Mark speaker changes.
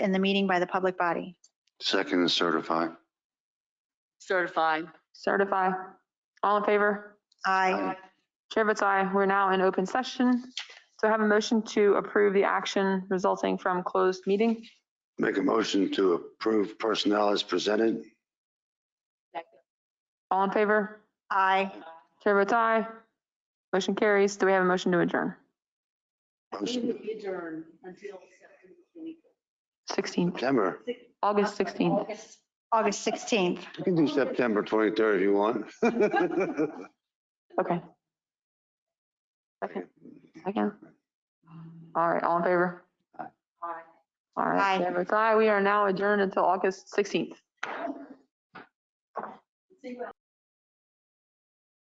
Speaker 1: in the meeting by the public body.
Speaker 2: Second is certify.
Speaker 3: Certify.
Speaker 4: Certify. All in favor?
Speaker 1: Aye.
Speaker 4: Chair votes aye. We're now in open session. So I have a motion to approve the action resulting from closed meeting.
Speaker 2: Make a motion to approve personnel as presented.
Speaker 4: All in favor?
Speaker 1: Aye.
Speaker 4: Chair votes aye. Motion carries. Do we have a motion to adjourn?
Speaker 2: Motion-
Speaker 3: Adjourn until September 20th.
Speaker 4: 16th,
Speaker 2: September.
Speaker 4: August 16th.
Speaker 3: August.
Speaker 1: August 16th.
Speaker 2: You can do September 23rd if you want.
Speaker 4: Okay. Second, second. All right, all in favor?
Speaker 3: Aye.
Speaker 4: All
Speaker 1: Aye.
Speaker 4: right, Chair votes aye. We are now adjourned until August 16th.
Speaker 3: See what